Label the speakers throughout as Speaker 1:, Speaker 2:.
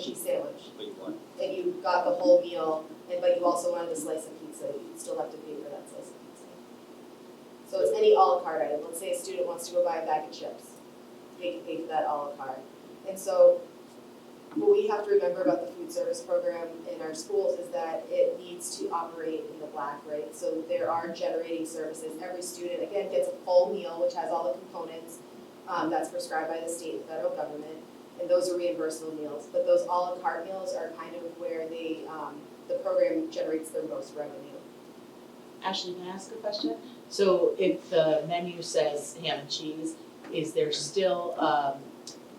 Speaker 1: cheese sandwich,
Speaker 2: Wait, what?
Speaker 1: and you got the whole meal, and but you also wanted a slice of pizza, you'd still have to pay for that slice of pizza. So it's any a la carte item, let's say a student wants to go buy a bag of chips, they can pay for that a la carte. And so, what we have to remember about the food service program in our schools is that it needs to operate in the black, right? So there are generating services, every student, again, gets a full meal, which has all the components, um, that's prescribed by the state and federal government and those are reimbursable meals. But those a la carte meals are kind of where they, um, the program generates their most revenue.
Speaker 3: Ashley, can I ask a question? So if the menu says ham and cheese, is there still um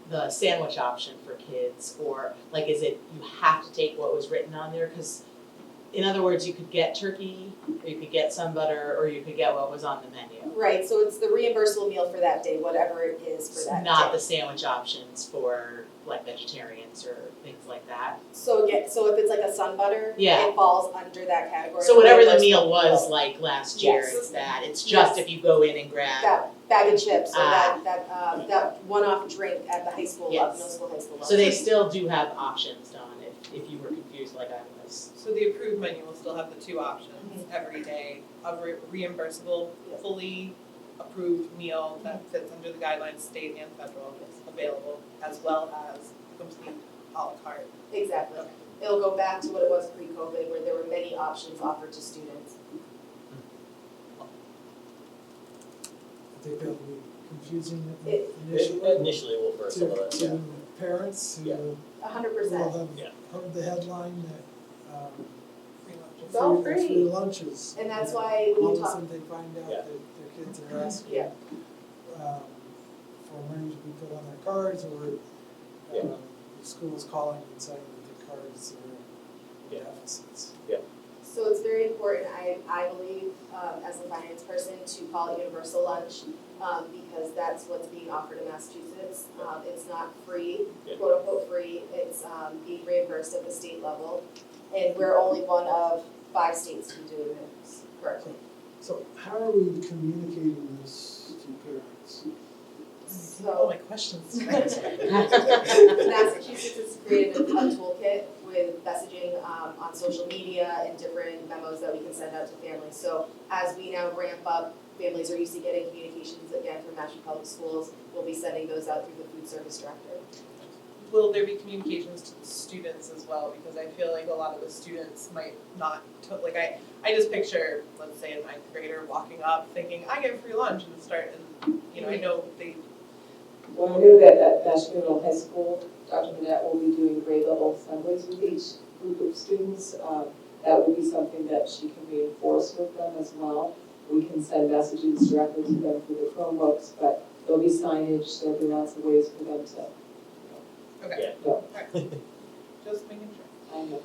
Speaker 3: the sandwich option for kids? Or like, is it, you have to take what was written on there? Cause in other words, you could get turkey, or you could get some butter, or you could get what was on the menu.
Speaker 1: Right, so it's the reimbursable meal for that day, whatever it is for that day.
Speaker 3: Not the sandwich options for like vegetarians or things like that.
Speaker 1: So again, so if it's like a sun butter,
Speaker 3: Yeah.
Speaker 1: it falls under that category.
Speaker 3: So whatever the
Speaker 1: Reimbursable
Speaker 3: meal was like last year,
Speaker 1: Yes.
Speaker 3: it's that. It's just if you go in and grab.
Speaker 1: That bag of chips or
Speaker 3: Ah.
Speaker 1: that, that, uh, that one-off drink at the high school level,
Speaker 3: Yes.
Speaker 1: middle school, high school level.
Speaker 3: So they still do have options, Don, if, if you were confused like I was.
Speaker 4: So the approved menu will still have the two options every day, of re- reimbursable,
Speaker 1: Yes.
Speaker 4: fully approved meal that fits under the guidelines, state and federal, that's available, as well as complete à la carte.
Speaker 1: Exactly. It'll go back to what it was pre-COVID, where there were many options offered to students.
Speaker 5: I think that would be confusing
Speaker 1: It-
Speaker 5: initially
Speaker 2: Initially, we'll burst some of
Speaker 5: to,
Speaker 2: that, yeah.
Speaker 5: to parents
Speaker 2: Yeah.
Speaker 5: who
Speaker 1: A hundred
Speaker 5: will
Speaker 1: percent.
Speaker 2: Yeah.
Speaker 5: have heard the headline that, um,
Speaker 4: Free lunches.
Speaker 1: It's all
Speaker 5: free-
Speaker 1: free.
Speaker 5: free lunches.
Speaker 1: And that's why when
Speaker 5: All
Speaker 1: we
Speaker 5: of a
Speaker 1: talk
Speaker 5: sudden they find out
Speaker 2: Yeah.
Speaker 5: that their kids are asking,
Speaker 1: Yeah.
Speaker 5: um, for money to be put on their cards or,
Speaker 2: Yeah.
Speaker 5: um, the school's calling and saying that their cards are
Speaker 2: Yeah.
Speaker 5: deficits.
Speaker 1: So it's very important, I, I believe, um, as a finance person, to call it universal lunch, um, because that's what's being offered in Massachusetts. Um, it's not free,
Speaker 2: Yeah.
Speaker 1: quote unquote free, it's, um, being reimbursed at the state level. And we're only one of five states who do this correctly.
Speaker 5: So how are we communicating this to parents? Oh
Speaker 2: Oh,
Speaker 4: All
Speaker 1: So
Speaker 4: my questions tonight.
Speaker 1: Massachusetts has created a toolkit with messaging, um, on social media and different memos that we can send out to families. So as we now ramp up, families are used to getting communications again from Mashpee Public Schools. We'll be sending those out through the food service director.
Speaker 4: Will there be communications to the students as well? Because I feel like a lot of the students might not, to- like, I, I just picture, let's say, a ninth grader walking up thinking, I get free lunch and start, and, you know, I know they
Speaker 6: Well, we know that at National Middle High School, Dr. Manette will be doing grade level assemblies with each group of students. Um, That will be something that she can reinforce with them as well. We can send messages directly to them through the Chromebooks, but there'll be signage, there'll be lots of ways for them to,
Speaker 4: Okay.
Speaker 6: Yeah.
Speaker 4: Alright. Just making sure.
Speaker 6: I know,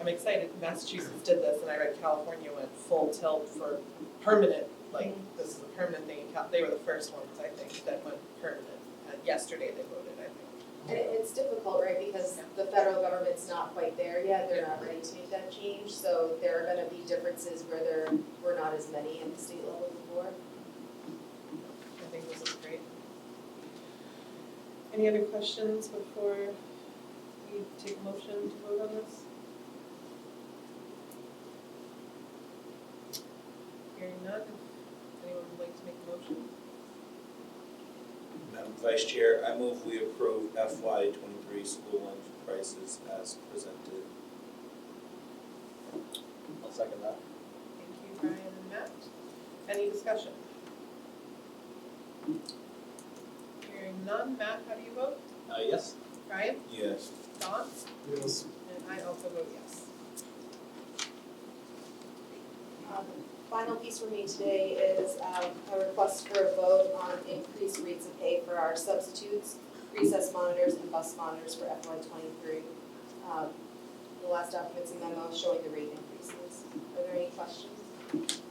Speaker 4: I'm excited. Massachusetts did this, and I read California went full tilt for permanent. Like this is a permanent thing. in Cal- They were the first ones, I think, that went permanent. Uh, yesterday they voted, I think.
Speaker 1: And it- it's difficult, right, because the federal government's not quite there yet, they're not ready to make that change. So there are gonna be differences where there were not as many at the state level before.
Speaker 4: I think this is great. Any other questions before we take a motion to vote on this? Hearing none. Anyone would like to make a motion?
Speaker 7: Madam Um, Vice Chair, I move we approve FY twenty-three school lunch prices as presented.
Speaker 2: I'll second that.
Speaker 4: Thank you, Brian and Matt. Any discussion? Hearing none, Matt, how do you vote?
Speaker 2: Uh, yes?
Speaker 4: Brian?
Speaker 7: Yes.
Speaker 4: Don?
Speaker 5: Yes,
Speaker 4: And I also vote yes.
Speaker 1: Um, Final piece for me today is um, a request for a vote on increased rates of pay for our substitutes, recess monitors, and bus monitors for FY twenty-three. Um, The last document's a memo showing the rate increases. Are there any questions?